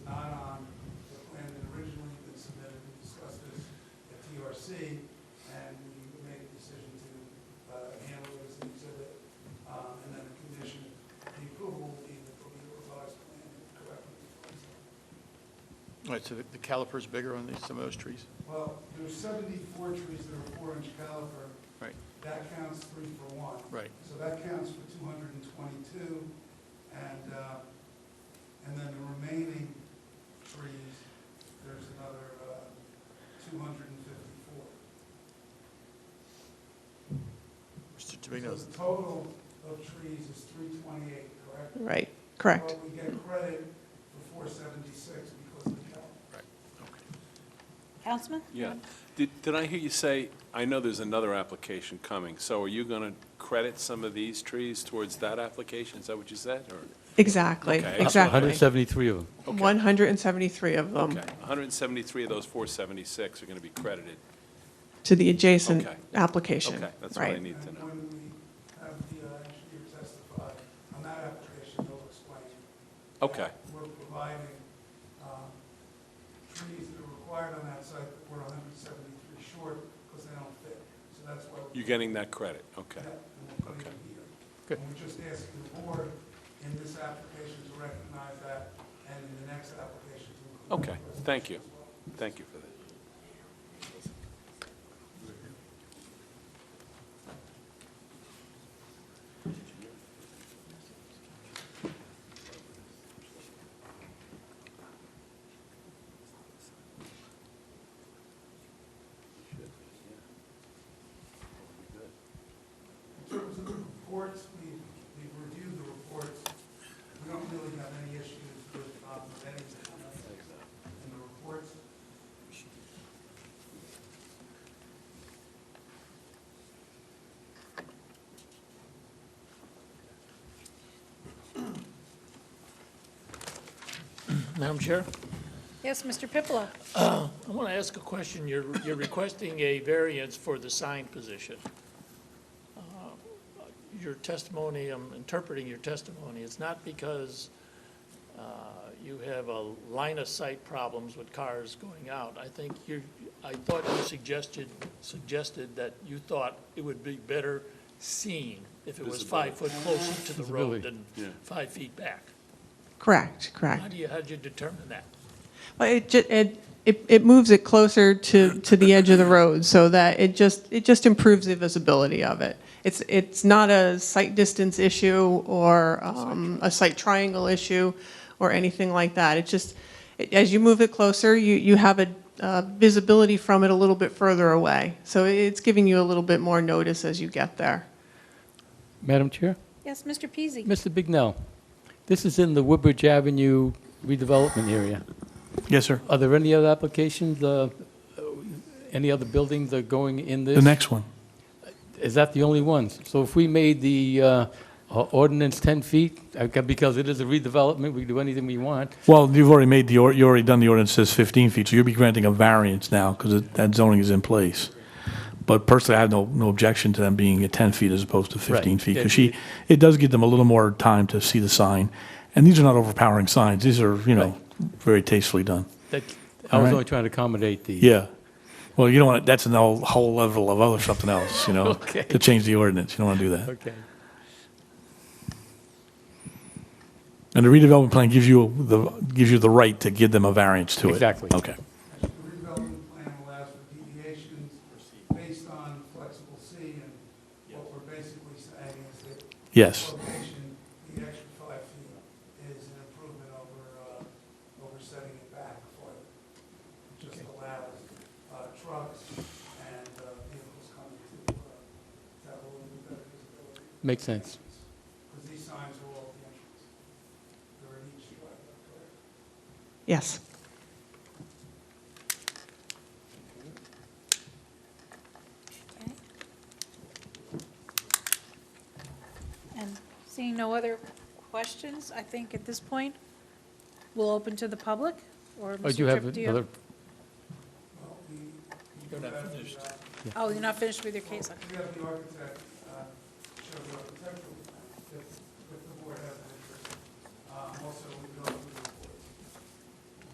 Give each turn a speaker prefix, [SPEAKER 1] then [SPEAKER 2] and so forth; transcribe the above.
[SPEAKER 1] uh, um,
[SPEAKER 2] All right, so the the caliper's bigger on these, some of those trees?
[SPEAKER 1] Well, there's 74 trees that are four-inch caliper.
[SPEAKER 2] Right.
[SPEAKER 1] That counts three for one.
[SPEAKER 2] Right.
[SPEAKER 1] So that counts for 222, and, uh, and then the remaining trees, there's another uh, 254.
[SPEAKER 2] Mr. Tabino,
[SPEAKER 1] So the total of trees is 328, correct?
[SPEAKER 3] Right, correct.
[SPEAKER 1] But we get credit for 476 because of the caliper.
[SPEAKER 2] okay.
[SPEAKER 4] Councilman?
[SPEAKER 5] Yeah. Did, did I hear you say, I know there's another application coming, so are you going to credit some of these trees towards that application? Is that what you said, or?
[SPEAKER 3] Exactly,
[SPEAKER 5] Okay.
[SPEAKER 3] exactly.
[SPEAKER 6] 173 of them.
[SPEAKER 5] Okay.
[SPEAKER 3] 173 of them
[SPEAKER 5] Okay, 173 of those 476 are going to be credited.
[SPEAKER 3] to the adjacent
[SPEAKER 5] Okay.
[SPEAKER 3] application.
[SPEAKER 5] Okay, that's what I
[SPEAKER 3] right.
[SPEAKER 5] need to know.
[SPEAKER 1] And when we have the uh, engineer testify on that application, they'll explain.
[SPEAKER 5] Okay,
[SPEAKER 1] that We're providing um, trees that are required on that site, but we're 173 short because they don't fit. So that's why we're
[SPEAKER 5] you're getting that credit, okay.
[SPEAKER 1] putting it here.
[SPEAKER 2] Good.
[SPEAKER 1] And we're just asking the board in this application to recognize that and in the next application to include.
[SPEAKER 5] Okay, thank you. Thank you for that.
[SPEAKER 1] In terms of the reports, we, we've reviewed the reports. We don't really have any issues with, um, with any of the- in the reports.
[SPEAKER 7] Madam Chair,
[SPEAKER 4] Yes, Mr. Pippola.
[SPEAKER 7] I want to ask a question. You're, you're requesting a variance for the sign position. Uh, Your testimony, I'm interpreting your testimony, it's not because uh, you have a line of sight problems with cars going out. I think you, I thought you suggested, suggested that you thought it would be better seen if it was five foot closer to the road than five feet back.
[SPEAKER 3] Correct,
[SPEAKER 7] How
[SPEAKER 3] correct.
[SPEAKER 7] do you, how did you determine that?
[SPEAKER 3] Well, it, ju- it, it it moves it closer to, to the edge of the road so that it just, it just improves the visibility of it. It's, it's not a site distance issue or um, a site triangle issue or anything like that. It's just, it- as you move it closer, you, you have a uh, visibility from it a little bit further away. So it's giving you a little bit more notice as you get there.
[SPEAKER 6] Madam Chair?
[SPEAKER 4] Yes, Mr. Peasy.
[SPEAKER 6] Mr. Bignell, this is in the Woodbridge Avenue redevelopment area.
[SPEAKER 8] Yes, sir.
[SPEAKER 6] Are there any other applications, uh, any other buildings that are going in this?
[SPEAKER 8] The next one.
[SPEAKER 6] Is that the only ones? So if we made the uh, o- ordinance 10 feet, uh, because it is a redevelopment, we do anything we want,
[SPEAKER 8] Well, you've already made the, or- you already done the ordinance says 15 feet, so you'll be granting a variance now because that zoning is in place. But personally, I have no, no objection to them being at 10 feet as opposed to 15
[SPEAKER 6] Right.
[SPEAKER 8] feet.
[SPEAKER 6] Yeah,
[SPEAKER 8] Because she, it does give them a little more time to see the sign. And these are not overpowering signs. These are, you know, very tastefully done.
[SPEAKER 6] that, I was
[SPEAKER 8] Alright.
[SPEAKER 6] only trying to accommodate the.
[SPEAKER 8] Yeah. Well, you don't want, that's a whole whole level of other something else, you know,
[SPEAKER 6] Okay.
[SPEAKER 8] to change the ordinance. You don't want to do that.
[SPEAKER 6] Okay.
[SPEAKER 8] And the redevelopment plan gives you the, gives you the right to give them a variance to it.
[SPEAKER 6] Exactly.
[SPEAKER 8] Okay.
[SPEAKER 1] The redevelopment plan allows for deviations based on flexible C, and what we're basically saying is that
[SPEAKER 8] Yes.
[SPEAKER 1] location, the extra five feet is an improvement over, uh, over setting it back for, it just allows uh, trucks and uh, vehicles coming to, uh, to have a little bit better visibility.
[SPEAKER 6] Makes sense.
[SPEAKER 1] Because these signs are all at the entrance. They're in each driveway, correct?
[SPEAKER 3] Yes.
[SPEAKER 4] And seeing no other questions, I think at this point, we'll open to the public, or
[SPEAKER 6] Oh,
[SPEAKER 4] Mr.
[SPEAKER 6] do you have
[SPEAKER 4] Tripp, do you?
[SPEAKER 6] another?
[SPEAKER 7] You're not finished.
[SPEAKER 4] Oh, you're not finished with your case, okay.
[SPEAKER 1] We have the architect, uh, show the architectural Uh,